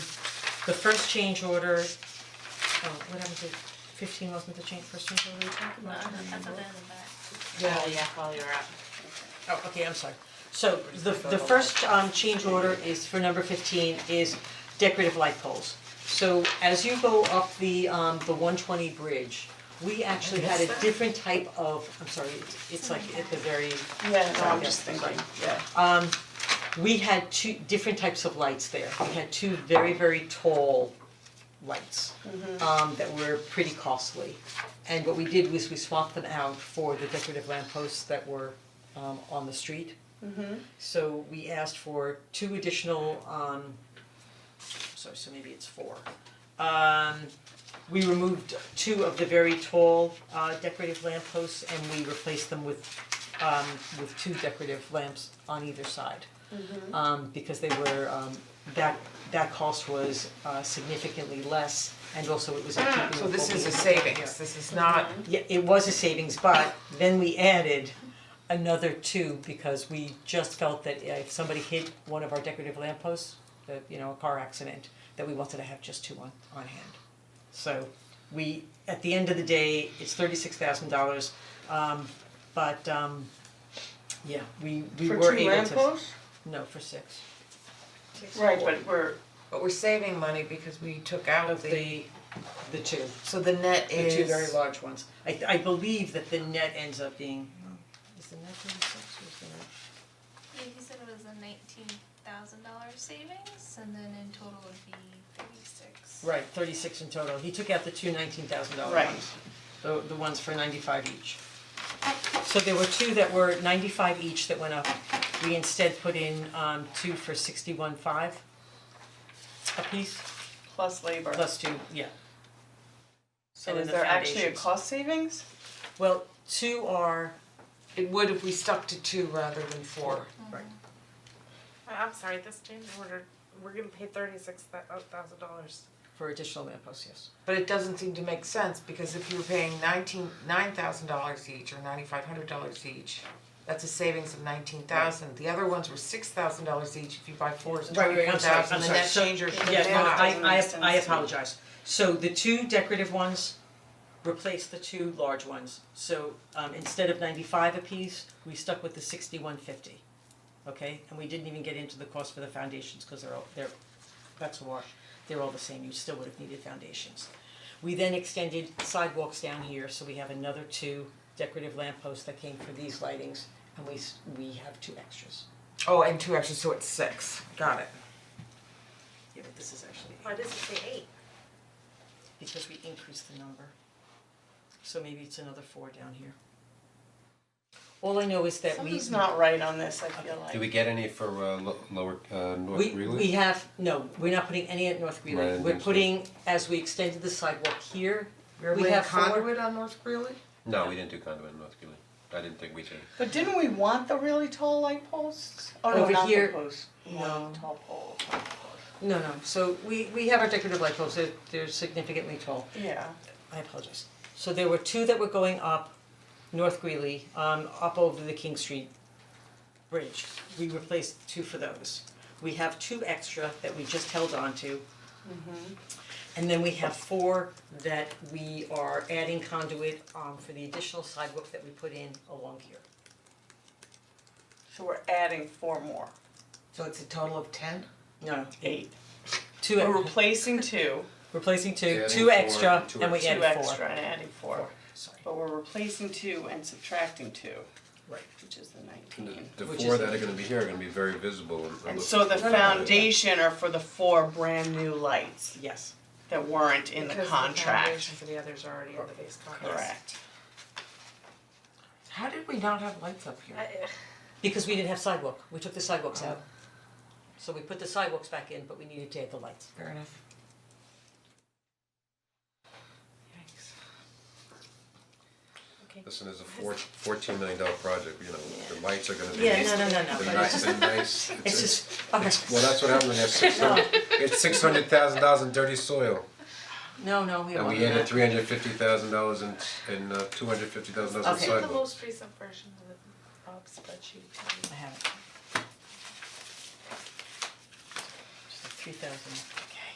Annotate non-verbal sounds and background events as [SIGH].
the first change order, oh, what happened to fifteen wasn't the change, first change order we talked No, about? that's at the end of that. Yeah, yeah, while you're up. Oh, okay, I'm sorry. So the the first um change order is for number fifteen is decorative light poles. So as you go up the um the one twenty bridge, we actually had a different type of, I'm sorry, it's it's like at the very Yeah, no, I'm just thinking, yeah. we had two different types of lights there. We had two very, very tall lights um that were pretty costly. And what we did was we swapped them out for the decorative lampposts that were um on the street. Mm-hmm. So we asked for two additional um sorry, so maybe it's four. Um we removed two of the very tall uh decorative lampposts and we replaced them with um with two decorative lamps on either side Mm-hmm. um because they were um that that cost was uh significantly less and also it was in keeping Ah, So with this what we is a had done savings, here. this is not, Ah. Yeah, it was a savings, but then we added another two because we just felt that if somebody hit one of our decorative lampposts, that you know, a car accident, that we wanted to have just two on on hand. So we, at the end of the day, it's thirty six thousand dollars, um but um yeah, we we were able to. No, for six. Right, but we're, but we're saving money because we took out Of the, the, the two, so the net the is. two very large ones. I I believe that the net ends up being, is the net thirty-six or is the net? Yeah, he said it was a nineteen thousand dollar savings, and then in total would be thirty-six. Right, thirty-six in total. He took out the two nineteen thousand dollar Right. ones. The the ones for ninety-five each. So there were two that were ninety-five each that went up. We instead put in um two for sixty-one five a piece, plus labor. plus two, yeah. So and is then the there actually a foundations. cost savings? Well, two are, It would if we stuck to two rather than four. right, Uh, I'm sorry, this change order, we're gonna pay thirty-six thousand dollars. for additional lampposts, yes. But it doesn't seem to make sense because if you're paying nineteen, nine thousand dollars each or ninety-five hundred dollars each, that's a savings of nineteen thousand. The other ones were six thousand dollars each. If you buy four, it's Right, right, twenty-four I'm sorry, I'm thousand. The sorry, net so, changer should be yeah, no, five. doesn't make I sense I I to me. apologize. So the two decorative ones replace the two large ones. So um instead of ninety-five apiece, we stuck with the sixty-one fifty. Okay, and we didn't even get into the cost for the foundations, cause they're all, they're, that's a wash, they're all the same, you still would have needed foundations. We then extended sidewalks down here, so we have another two decorative lampposts that came for these lightings, and we s- we have two extras. Oh, and two extra, so it's six. Got it. Yeah, but this is actually. Why does it say eight? because we increased the number. So maybe it's another four down here. All I know is that we, Something's not right on this, I feel Do like. we get any for uh, lo- lower uh, North we, Greeley? we have, no, we're not putting any at North Right, I Greeley, didn't we're think so. putting, as we extended the sidewalk here, we laying have four. conduit on North Greeley? no, we didn't do conduit in North Greeley. I didn't think we did. But didn't we want the really tall light posts? Oh, no, Over not the here- posts, no. no, tall pole, No, no, so we, we have our decorative light poles, they're, they're significantly tall. yeah. I apologize. So there were two that were going up North Greeley, um, up over the King Street Bridge. We replaced two for those. We have two extra that we just held on to. Mm-hmm. And then we have four that we are adding conduit, um, for the additional sidewalk that we put in along here. So we're adding four more, So it's a total of ten? No, eight. two, We're ex- replacing two, replacing two, Adding two four, extra, two and [LAUGHS] we two added four. extra and adding four, Sorry, but we're replacing two and subtracting two, right. which is the The, nineteen. the Which four is- that are going to be here are going to be very visible. And, And so the foundation are for the four brand new lights Yes, that weren't in the contract, Because the foundation for the others are already in the base contract. correct? How did we not have lights up here? Oh. because we didn't have sidewalk, we took the sidewalks out. So we put the sidewalks back in, but we needed to add the lights. Fair enough. Yikes. Listen, it's a four, fourteen million dollar project. You know, the lights are going to be. Yeah, no, no, no, no, but The it's nice, just, the nice. It's, [LAUGHS] it's it's- just, okay, well, that's what happened when [LAUGHS] there's six hundred. It's six hundred thousand dollars in dirty soil, no, no, we don't and want we added that. three hundred fifty thousand dollars and and uh, two hundred fifty thousand dollars in Okay. The sidewalks. most recent version of the Bob's spreadsheet. I have it. Just like three thousand,